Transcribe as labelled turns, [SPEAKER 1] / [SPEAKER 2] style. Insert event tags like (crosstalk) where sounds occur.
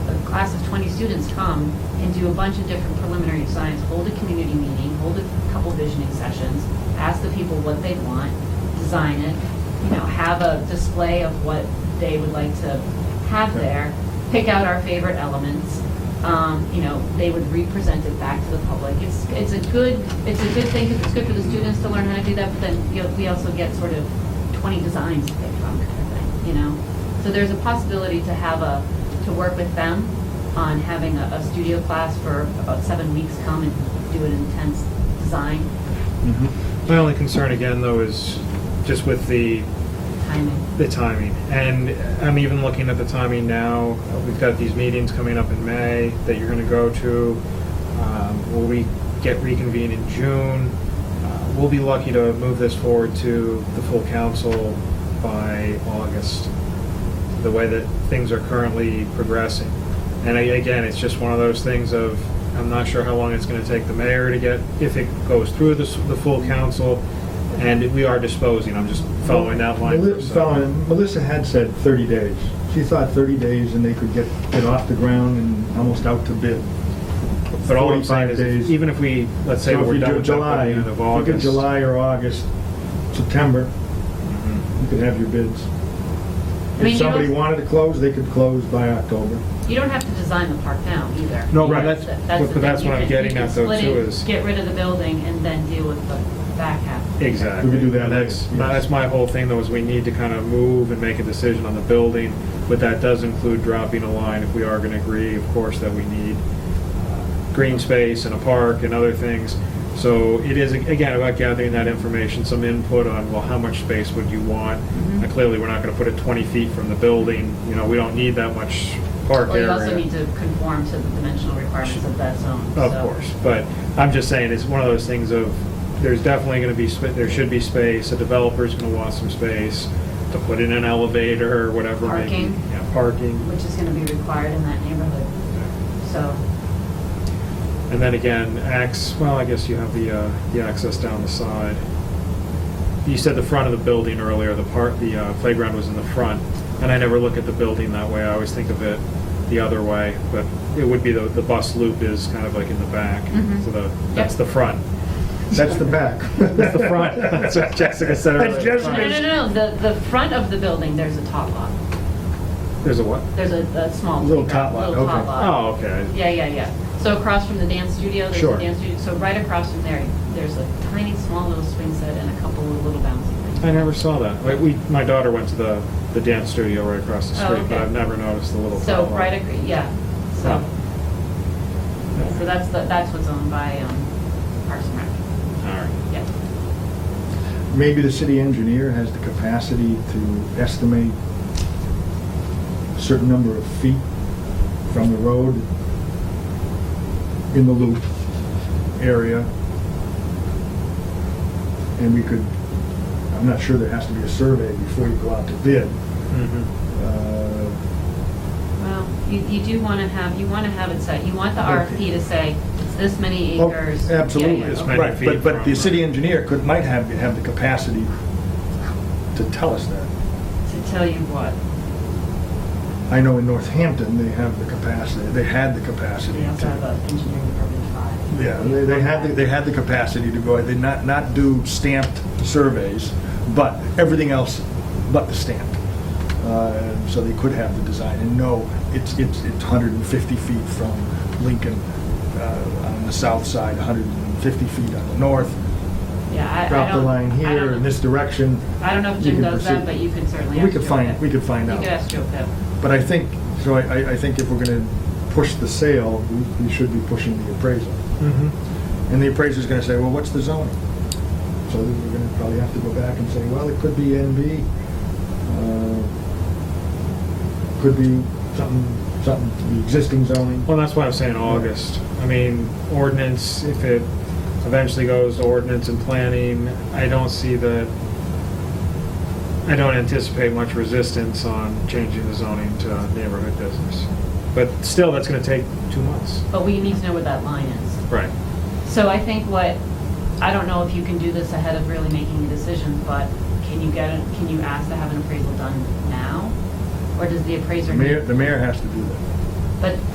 [SPEAKER 1] class of 20 students come and do a bunch of different preliminary science, hold a community meeting, hold a couple visioning sessions, ask the people what they want, design it, you know, have a display of what they would like to have there, pick out our favorite elements, um, you know, they would re-present it back to the public. It's, it's a good, it's a good thing, because it's good for the students to learn how to do that, but then you know, we also get sort of 20 designs to pick from, kind of thing, you know? So there's a possibility to have a, to work with them on having a, a studio class for about seven weeks come and do an intense design
[SPEAKER 2] Mm-hmm.
[SPEAKER 3] My only concern again, though, is just with the
[SPEAKER 1] timing.
[SPEAKER 3] the timing. And I'm even looking at the timing now. We've got these meetings coming up in May that you're going to go to. Um, will we get reconvened in June? Uh, we'll be lucky to move this forward to the full council by August. The way that things are currently progressing. And I, again, it's just one of those things of I'm not sure how long it's going to take the mayor to get if it goes through the, s- the full council. And we are disposing. I'm just following that line. for a
[SPEAKER 2] Meli-
[SPEAKER 3] second.
[SPEAKER 2] following- Melissa had said 30 days. She thought 30 days and they could get it off the ground and almost out to bid.
[SPEAKER 3] But all I'm saying
[SPEAKER 2] 45
[SPEAKER 3] is,
[SPEAKER 2] days.
[SPEAKER 3] even if we, let's say
[SPEAKER 2] So if
[SPEAKER 3] we're
[SPEAKER 2] you
[SPEAKER 3] done
[SPEAKER 2] do
[SPEAKER 3] with that by
[SPEAKER 2] July,
[SPEAKER 3] the end of
[SPEAKER 2] if you do
[SPEAKER 3] August.
[SPEAKER 2] July or August, September,
[SPEAKER 3] Mm-hmm.
[SPEAKER 2] you could have your bids.
[SPEAKER 1] mean, you
[SPEAKER 2] If somebody
[SPEAKER 1] don't-
[SPEAKER 2] wanted to close, they could close by October.
[SPEAKER 1] You don't have to design the park now either.
[SPEAKER 3] No,
[SPEAKER 2] Right.
[SPEAKER 3] but
[SPEAKER 1] That-
[SPEAKER 3] that's,
[SPEAKER 1] the
[SPEAKER 3] but that's
[SPEAKER 1] thing.
[SPEAKER 3] what
[SPEAKER 1] You
[SPEAKER 3] I'm
[SPEAKER 1] can- you
[SPEAKER 3] getting
[SPEAKER 1] can
[SPEAKER 3] at though
[SPEAKER 1] split
[SPEAKER 3] too
[SPEAKER 1] it,
[SPEAKER 3] is,
[SPEAKER 1] Get rid of the building and then deal with the back half.
[SPEAKER 3] exactly.
[SPEAKER 2] We could do that
[SPEAKER 3] And That's,
[SPEAKER 2] later, yes.
[SPEAKER 3] that's my whole thing though, is we need to kind of move and make a decision on the building, but that does include dropping a line if we are going to agree, of course, that we need uh, green space and a park and other things. So it is, again, about gathering that information, some input on, well, how much space would you want?
[SPEAKER 1] Mhm.
[SPEAKER 3] Now, Clearly, we're not going to put it 20 feet from the building, you know, we don't need that much park
[SPEAKER 1] Well,
[SPEAKER 3] area.
[SPEAKER 1] you also need to conform to the dimensional requirements of that zone.
[SPEAKER 3] Of
[SPEAKER 1] so-
[SPEAKER 3] course, but I'm just saying, it's one of those things of, there's definitely gonna be, sp- there should be space, a developer's gonna want some space to put in an elevator or whatever. it may be.
[SPEAKER 1] Parking.
[SPEAKER 3] Yeah, parking.
[SPEAKER 1] Which is gonna be required in that neighborhood, so.
[SPEAKER 3] And then again, ax, well, I guess you have the, uh, the access down the side. You said the front of the building earlier, the part, the uh, playground was in the front, and I never look at the building that way, I always think of it the other way, but it would be the, the bus loop is kind of like in the back,
[SPEAKER 1] Mhm.
[SPEAKER 3] so the, that's the front.
[SPEAKER 2] That's the back.
[SPEAKER 1] (laughs)
[SPEAKER 2] (laughs)
[SPEAKER 3] That's the front. That's what Jessica said earlier.
[SPEAKER 2] That's
[SPEAKER 1] No, no,
[SPEAKER 2] Jessica's.
[SPEAKER 1] no, no, the, the front of the building, there's a top lot.
[SPEAKER 3] There's a what?
[SPEAKER 1] There's a, a small.
[SPEAKER 2] Little
[SPEAKER 1] playground,
[SPEAKER 2] tot lot,
[SPEAKER 1] Little tot
[SPEAKER 2] okay.
[SPEAKER 1] lot.
[SPEAKER 3] Oh, okay.
[SPEAKER 1] Yeah, yeah, yeah. So across from the dance studio, there's a
[SPEAKER 3] Sure.
[SPEAKER 1] dance studio, so right across from there, there's a tiny, small little swing set and a couple of little bouncy things.
[SPEAKER 3] I never saw that. Like, we, my daughter went to the, the dance studio right across the
[SPEAKER 1] Oh,
[SPEAKER 3] street, but
[SPEAKER 1] okay.
[SPEAKER 3] I've never noticed the little.
[SPEAKER 1] So
[SPEAKER 3] pop-up.
[SPEAKER 1] right, ac- yeah, so, so that's, the- that's what's owned by um, Parks and Rec,
[SPEAKER 3] All right.
[SPEAKER 1] yeah.
[SPEAKER 2] Maybe the city engineer has the capacity to estimate a certain number of feet from the road in the loop area. And we could, I'm not sure there has to be a survey before you go out to bid.
[SPEAKER 3] Mhm.
[SPEAKER 2] Uh,
[SPEAKER 1] Well, you, you do want to have, you want to have it set, you want the RFP to say, it's this many
[SPEAKER 2] Oh,
[SPEAKER 1] acres. Yeah,
[SPEAKER 2] Absolutely,
[SPEAKER 1] yeah,
[SPEAKER 3] This
[SPEAKER 1] okay.
[SPEAKER 3] many
[SPEAKER 2] right,
[SPEAKER 3] feet
[SPEAKER 2] but, but
[SPEAKER 3] from-
[SPEAKER 2] the city engineer could, might have, have the capacity to tell us that.
[SPEAKER 1] To tell you what,
[SPEAKER 2] I know in Northampton, they have the capacity, they had the capacity
[SPEAKER 1] we also have
[SPEAKER 2] to.
[SPEAKER 1] an engineering department five.
[SPEAKER 2] Yeah, they, they had, the- they had the capacity to go, ahead. they not, not do stamped surveys, but everything else but the stamp. Uh, So they could have the design and know it's, it's, it's 150 feet from Lincoln uh, on the south side, 150 feet on the north,
[SPEAKER 1] Yeah, I, I don't.
[SPEAKER 2] drop the line
[SPEAKER 1] I
[SPEAKER 2] here
[SPEAKER 1] don't-
[SPEAKER 2] in this direction.
[SPEAKER 1] I don't know if
[SPEAKER 2] you
[SPEAKER 1] Jim
[SPEAKER 2] can
[SPEAKER 1] does that,
[SPEAKER 2] proceed.
[SPEAKER 1] but you can certainly ask
[SPEAKER 2] We could
[SPEAKER 1] Joe
[SPEAKER 2] find,
[SPEAKER 1] Pip.
[SPEAKER 2] we could find
[SPEAKER 1] You could
[SPEAKER 2] out.
[SPEAKER 1] ask Joe Pip.
[SPEAKER 2] But I think, so I, I- I think if we're gonna push the sale, we, we should be pushing the appraisal.
[SPEAKER 3] Mhm.
[SPEAKER 2] And the appraiser's gonna say, well, what's the zoning? So then we're gonna probably have to go back and say, well, it could be NB, uh, could be something, something, the existing zoning.
[SPEAKER 3] Well, that's why I'm saying August. I mean, ordinance, if it eventually goes to ordinance and planning, I don't see that, I don't anticipate much resistance on changing the zoning to neighborhood business. But still, that's gonna take two months.
[SPEAKER 1] But we need to know where that line is.
[SPEAKER 3] Right.
[SPEAKER 1] So I think what, I don't know if you can do this ahead of really making a decision, but can you get, a- can you ask to have an appraisal done now? Or does the appraiser
[SPEAKER 2] The mayor,
[SPEAKER 1] need?
[SPEAKER 2] the mayor has to do that.
[SPEAKER 1] But